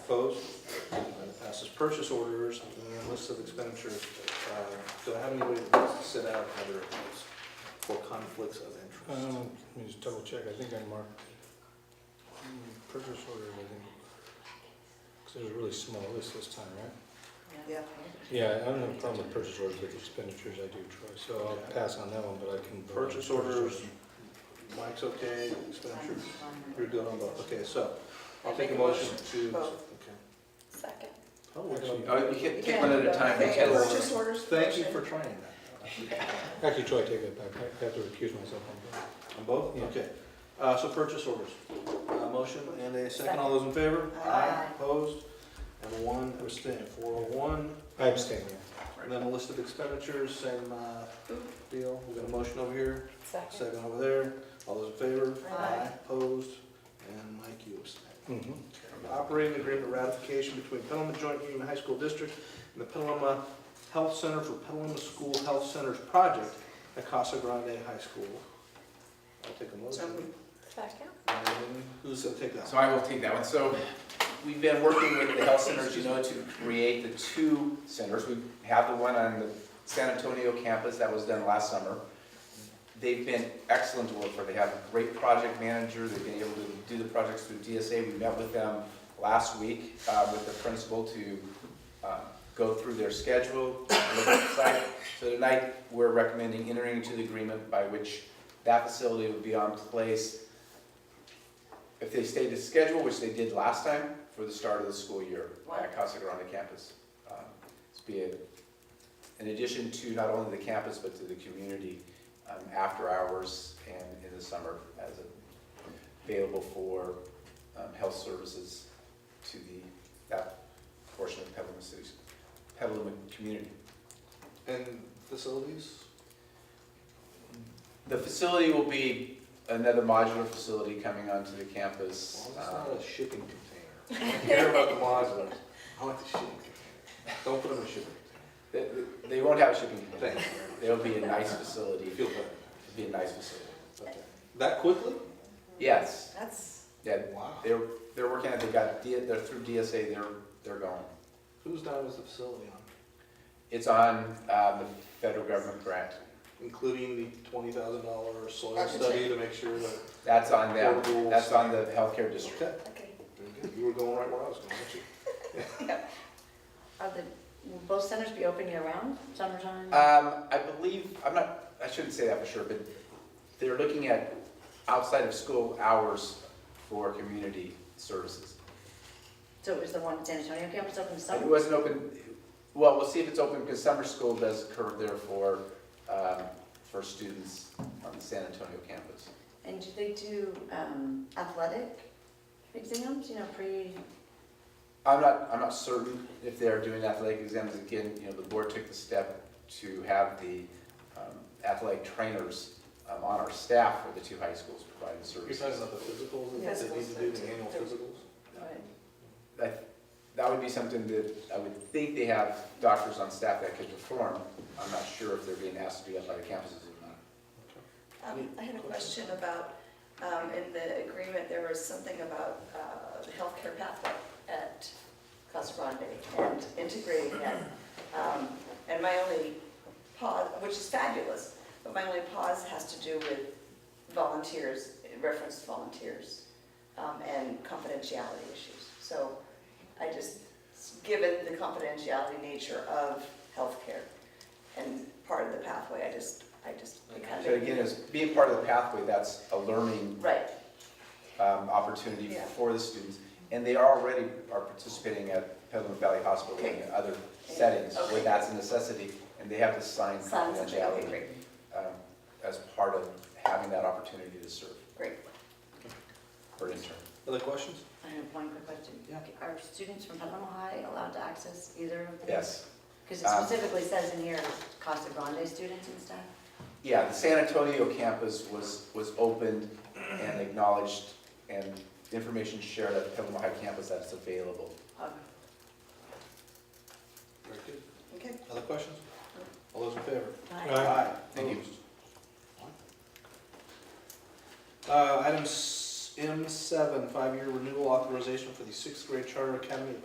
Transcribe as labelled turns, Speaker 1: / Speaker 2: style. Speaker 1: Opposed? It Passes purchase orders and lists of expenditures. Uh, Do I have anybody that wants to sit out other of those for conflicts of interest?
Speaker 2: Um, let me just double check, I think I marked it. Hmm, purchase order, I think. Cause it was a really small list this time, right?
Speaker 3: Yeah.
Speaker 2: Yeah, I don't have a problem with purchase orders, with expenditures I do, Troy, so I'll pass on that one, but I can. vote on
Speaker 1: Purchase orders, Mike's okay, expenditures, you're good on both. Okay, so I'll take a motion to.
Speaker 3: Both.
Speaker 1: okay.
Speaker 4: Second.
Speaker 1: Oh, actually,
Speaker 5: Oh, you can't take one at a time.
Speaker 3: Okay,
Speaker 1: Yes.
Speaker 3: Purchase orders.
Speaker 1: Thank you
Speaker 3: motion.
Speaker 1: for trying that.
Speaker 2: Actually, Troy, take it back, I have to recuse myself on that.
Speaker 1: On both?
Speaker 2: Yeah.
Speaker 1: Okay. Uh, So purchase orders. Uh, Motion and a second. All those in favor?
Speaker 3: Aye.
Speaker 1: Opposed? And one abstain. Four oh one.
Speaker 2: I abstain, yeah.
Speaker 1: And then a list of expenditures, same uh, deal. We've got a motion over here,
Speaker 4: Second.
Speaker 1: second over there. All those in favor?
Speaker 3: Aye.
Speaker 1: Opposed? And Mike, you abstain.
Speaker 2: Mm-hmm.
Speaker 1: Operating agreement ratification between Petaluma Joint Union High School District and the Petaluma Health Center for Petaluma School Health Centers Project at Casa Grande High School. I'll take a
Speaker 3: So
Speaker 1: motion.
Speaker 3: moved.
Speaker 4: Second.
Speaker 1: And Who's gonna take that?
Speaker 5: So I will take that one. So we've been working with the health centers, you know, to create the two centers. We have the one on the San Antonio campus that was done last summer. They've been excellent to work for. They have a great project manager. They've been able to do the projects through DSA. We met with them last week uh, with the principal to uh, go through their schedule, look at the site. So tonight, we're recommending entering into the agreement by which that facility would be on place if they stay to schedule, which they did last time, for the start of the school year at Casa Grande campus. Um, It's be a- in addition to not only the campus, but to the community um, after hours and in the summer as a- available for um, health services to the, that portion of Petaluma City, Petaluma community.
Speaker 1: And facilities?
Speaker 5: The facility will be another modular facility coming onto the
Speaker 1: As
Speaker 5: campus.
Speaker 1: long as
Speaker 5: um,
Speaker 1: it's not a shipping container. I don't care about the modulars. I want the shipping container. Don't put them in a shipping
Speaker 5: They, they won't have a shipping container.
Speaker 1: container. Thank you.
Speaker 5: It'll be a nice facility.
Speaker 1: You feel
Speaker 5: It'll
Speaker 1: better.
Speaker 5: be a nice facility.
Speaker 1: Okay. That quickly?
Speaker 5: Yes,
Speaker 3: That's,
Speaker 5: yeah,
Speaker 1: Wow.
Speaker 5: they're, they're working, they got, D- they're through DSA, they're, they're going.
Speaker 1: Whose dime is the facility on?
Speaker 5: It's on, um, the federal government grant.
Speaker 1: Including the twenty thousand dollar soil
Speaker 3: Architect.
Speaker 1: study to make sure that.
Speaker 5: That's on them. That's on the healthcare district.
Speaker 1: Okay.
Speaker 4: Okay.
Speaker 1: Very good. You were going right where I was going, weren't you?
Speaker 4: Are the, will both centers be open year-round, summertime?
Speaker 5: Um, I believe, I'm not, I shouldn't say that for sure, but they're looking at outside of school hours for community services.
Speaker 4: So is the one in San Antonio campus open to
Speaker 5: It
Speaker 4: summer?
Speaker 5: wasn't open, well, we'll see if it's open because summer school does occur there for, um, for students on the San Antonio campus.
Speaker 4: And do they do um, athletic exams, you know, pre,
Speaker 5: I'm not, I'm not certain if they are doing athletic exams. Again, you know, the board took the step to have the um, athletic trainers um, on our staff for the two high schools providing
Speaker 1: You're
Speaker 5: services.
Speaker 1: talking about the physicals, that they need to do the annual physicals?
Speaker 4: what?
Speaker 5: That, that would be something that I would think they have doctors on staff that could perform. I'm not sure if they're being asked to do athletic campuses or not.
Speaker 3: um, I had a question about, um, in the agreement, there was something about, uh, the healthcare pathway at Casa Grande and integrating that. Um, and my only pause, which is fabulous, but my only pause has to do with volunteers, in reference to volunteers, um, and confidentiality issues. So I just, given the confidentiality nature of healthcare and part of the pathway, I just, I just, it kind
Speaker 5: So again,
Speaker 3: of,
Speaker 5: as being part of the pathway, that's a learning
Speaker 3: right,
Speaker 5: um, opportunity
Speaker 3: Yeah.
Speaker 5: for the students. And they already are participating at Petaluma Valley Hospital and other settings where
Speaker 3: Okay.
Speaker 5: that's a necessity. And they have to sign
Speaker 3: sounds, okay,
Speaker 5: confidentiality
Speaker 3: great,
Speaker 5: um, as part of having that opportunity to serve
Speaker 3: great.
Speaker 5: or intern.
Speaker 1: Other questions?
Speaker 4: I have one quick question.
Speaker 1: Yeah.
Speaker 4: Are students from Petaluma High allowed to access either of them?
Speaker 5: Yes.
Speaker 4: Because it
Speaker 5: Um,
Speaker 4: specifically says in here, Costa Grande students and stuff.
Speaker 5: Yeah, the San Antonio campus was, was opened and acknowledged and information shared at Petaluma High campus that's available.
Speaker 4: Okay.
Speaker 1: Very good.
Speaker 3: Okay.
Speaker 1: Other questions? All those in favor?
Speaker 5: Uh,
Speaker 2: Aye.
Speaker 5: Thank you.
Speaker 1: Opposed? Uh, item S- M seven, five-year renewal authorization for the sixth grade charter academy at